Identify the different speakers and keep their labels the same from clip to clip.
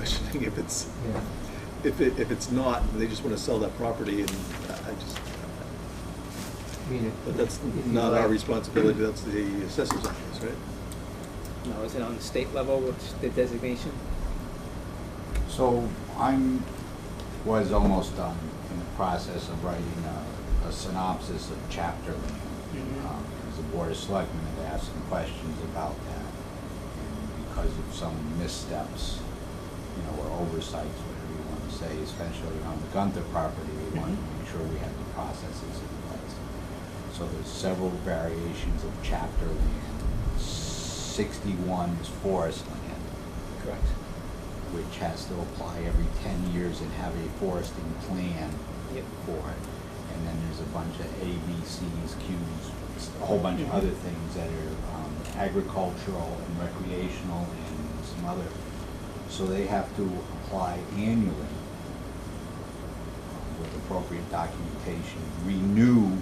Speaker 1: questioning if it's,
Speaker 2: Yeah.
Speaker 1: if it, if it's not, they just wanna sell that property and I I just,
Speaker 2: I mean, if-
Speaker 1: but that's
Speaker 2: if you
Speaker 1: not our
Speaker 2: let-
Speaker 1: responsibility, that's the assessor's office, right?
Speaker 3: No, is it on the state level, what's the designation?
Speaker 4: So I'm, was almost done in the process of writing a, a synopsis of chapter land.
Speaker 3: Mhm.
Speaker 4: Um, Because the board of selectmen had asked some questions about that. And because of some missteps, you know, or oversights, whatever you want to say, especially on the Gunther property, we wanted to make sure we had the processes in place. So there's several variations of chapter land. Sixty-one is forest land
Speaker 3: Correct.
Speaker 4: which has to apply every ten years and have a foresting plan
Speaker 3: Yep.
Speaker 4: for it. And then there's a bunch of A, B, Cs, Qs, a whole bunch of
Speaker 3: Mhm.
Speaker 4: other things that are um, agricultural and recreational and some other. So they have to apply annually um, with appropriate documentation, renew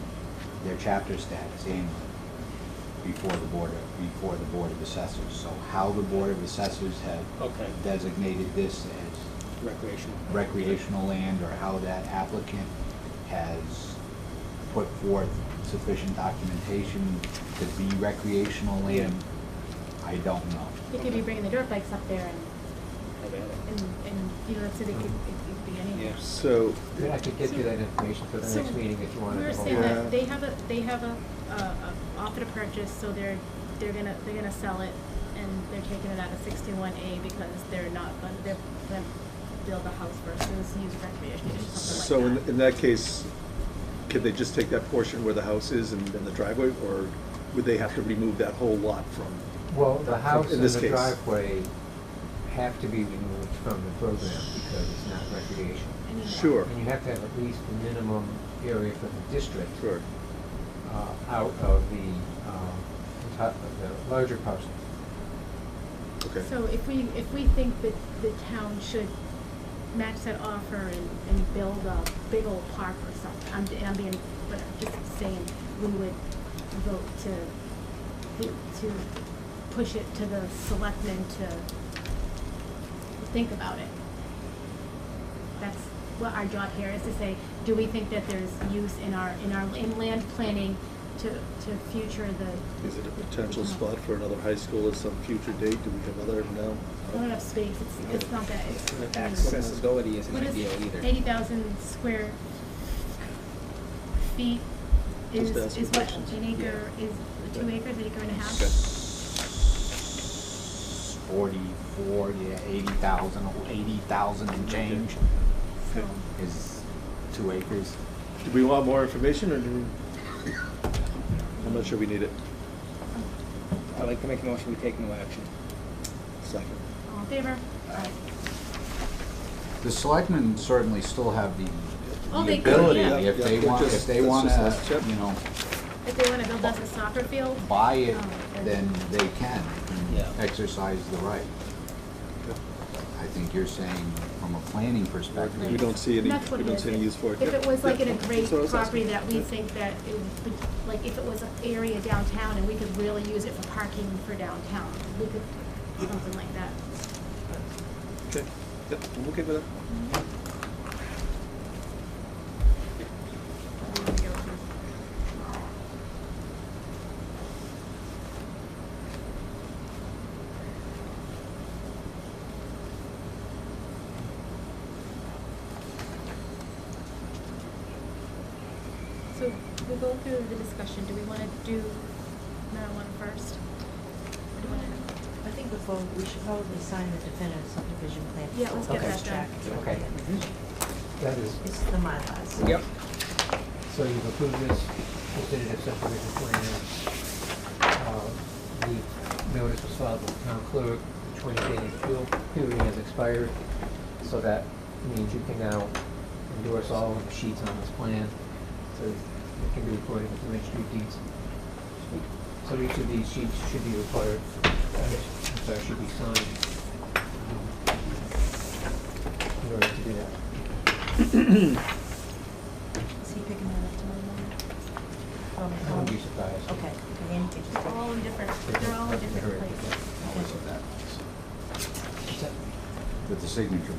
Speaker 4: their chapter status annually before the board, of- before the board of assessors. So how the board of assessors have
Speaker 3: Okay.
Speaker 4: designated this as
Speaker 3: Recreational.
Speaker 4: recreational land, or how that applicant has put forth sufficient documentation to be recreational land, I don't know.
Speaker 5: They could be bringing the dirt bikes up there
Speaker 1: Oh,
Speaker 3: Have at it.
Speaker 5: and, and, and, you know, so they could, it could be anything.
Speaker 3: Yes.
Speaker 1: So,
Speaker 2: I mean, I could get you that information for the
Speaker 5: So
Speaker 2: next meeting if you wanted.
Speaker 5: We were
Speaker 2: the whole-
Speaker 5: saying
Speaker 1: Yeah.
Speaker 5: that they have a, they have a, a, a offer to purchase, so they're, they're gonna, they're gonna sell it and they're taking it out of sixty-one A because they're not, gonna- they're gonna build a house versus use recreation or
Speaker 1: so
Speaker 5: something
Speaker 1: in,
Speaker 5: like that.
Speaker 1: in that case, can they just take that portion where the house is and, and the driveway, or would they have to remove that whole lot from?
Speaker 2: Well, the house
Speaker 1: in
Speaker 2: and
Speaker 1: this
Speaker 2: the
Speaker 1: case.
Speaker 2: driveway have to be removed from the program because it's not recreational.
Speaker 5: Anyway.
Speaker 1: Sure.
Speaker 2: And you have to have at least the minimum area for the district.
Speaker 1: Sure.
Speaker 2: uh, out of the, um, the top of the larger parcel.
Speaker 1: Okay.
Speaker 5: So if we, if we think that the town should match that offer and, and build a big old park or something, I'm, I'm being, but I'm just saying, we would vote to, to push it to the selectmen to think about it. That's what our job here is to say, do we think that there's use in our, in our, in land planning to, to future the,
Speaker 1: Is it a potential spot for another high school at some future date? Do we have other, no?
Speaker 5: I don't have space, it's, it's not that, it's.
Speaker 3: Accessibility isn't
Speaker 5: What is
Speaker 3: ideal either.
Speaker 5: eighty thousand square feet is,
Speaker 1: Just
Speaker 5: is
Speaker 1: asking
Speaker 5: what,
Speaker 1: questions.
Speaker 5: an acre, is two
Speaker 1: Right.
Speaker 5: acres, an acre and a half?
Speaker 1: Okay.
Speaker 4: Forty-four, yeah, eighty thousand, eighty thousand and change
Speaker 5: So,
Speaker 4: is two acres.
Speaker 1: Do we want more information, or do we? I'm not sure we need it.
Speaker 3: I'd like to make a motion, we take no action.
Speaker 1: Second.
Speaker 5: all in favor?
Speaker 4: The selectmen certainly still have the,
Speaker 5: Oh,
Speaker 4: the
Speaker 5: they could,
Speaker 4: ability,
Speaker 5: yeah.
Speaker 4: if they
Speaker 1: Yeah,
Speaker 4: want,
Speaker 1: just-
Speaker 4: if they
Speaker 1: that's
Speaker 4: want
Speaker 1: just- that's
Speaker 4: to,
Speaker 1: check.
Speaker 4: you know,
Speaker 5: If they wanna build us a soccer field?
Speaker 4: buy it,
Speaker 5: Oh,
Speaker 4: then they can and
Speaker 3: Yeah.
Speaker 4: exercise the right.
Speaker 1: Okay.
Speaker 4: I think you're saying from a planning
Speaker 1: We
Speaker 4: perspective,
Speaker 1: don't see any,
Speaker 5: That's what
Speaker 1: we
Speaker 5: it
Speaker 1: don't
Speaker 5: is.
Speaker 1: see any use for it.
Speaker 5: If
Speaker 1: Yep.
Speaker 5: it was like in a
Speaker 1: Yep.
Speaker 5: great
Speaker 1: That's what I was
Speaker 5: property that
Speaker 1: asking.
Speaker 5: we
Speaker 1: Yep.
Speaker 5: think that it would, be- like if it was an area downtown and we could really use it for parking for downtown, we could, something like that.
Speaker 1: Okay, yep, I'm okay with that.
Speaker 5: Where do we go from- So we go through the discussion, do we wanna do marijuana first? Or do we wanna-
Speaker 6: I think before, we should probably sign the definitive subdivision plan.
Speaker 5: Yeah, let's
Speaker 2: get
Speaker 6: First
Speaker 5: that done.
Speaker 6: track.
Speaker 2: Okay. That is,
Speaker 6: It's the MyLars.
Speaker 3: Yep.
Speaker 2: so you've approved this definitive subdivision plan. Uh, The notice was filed with the town clerk, the twenty-day appeal period has expired. So that means you can now endorse all of the sheets on this plan. So it can be recorded with the registry of deeds. So each of these sheets should be required, uh, I'm sorry, should be signed. um, In order to do that.
Speaker 6: Is he picking that up tomorrow morning?
Speaker 2: I wouldn't be surprised.
Speaker 6: Okay, Andy can just take
Speaker 5: They're
Speaker 6: it.
Speaker 5: all in different, they're all in different
Speaker 2: Different.
Speaker 5: places.
Speaker 4: always at that, place.
Speaker 2: Is that-
Speaker 4: that the signature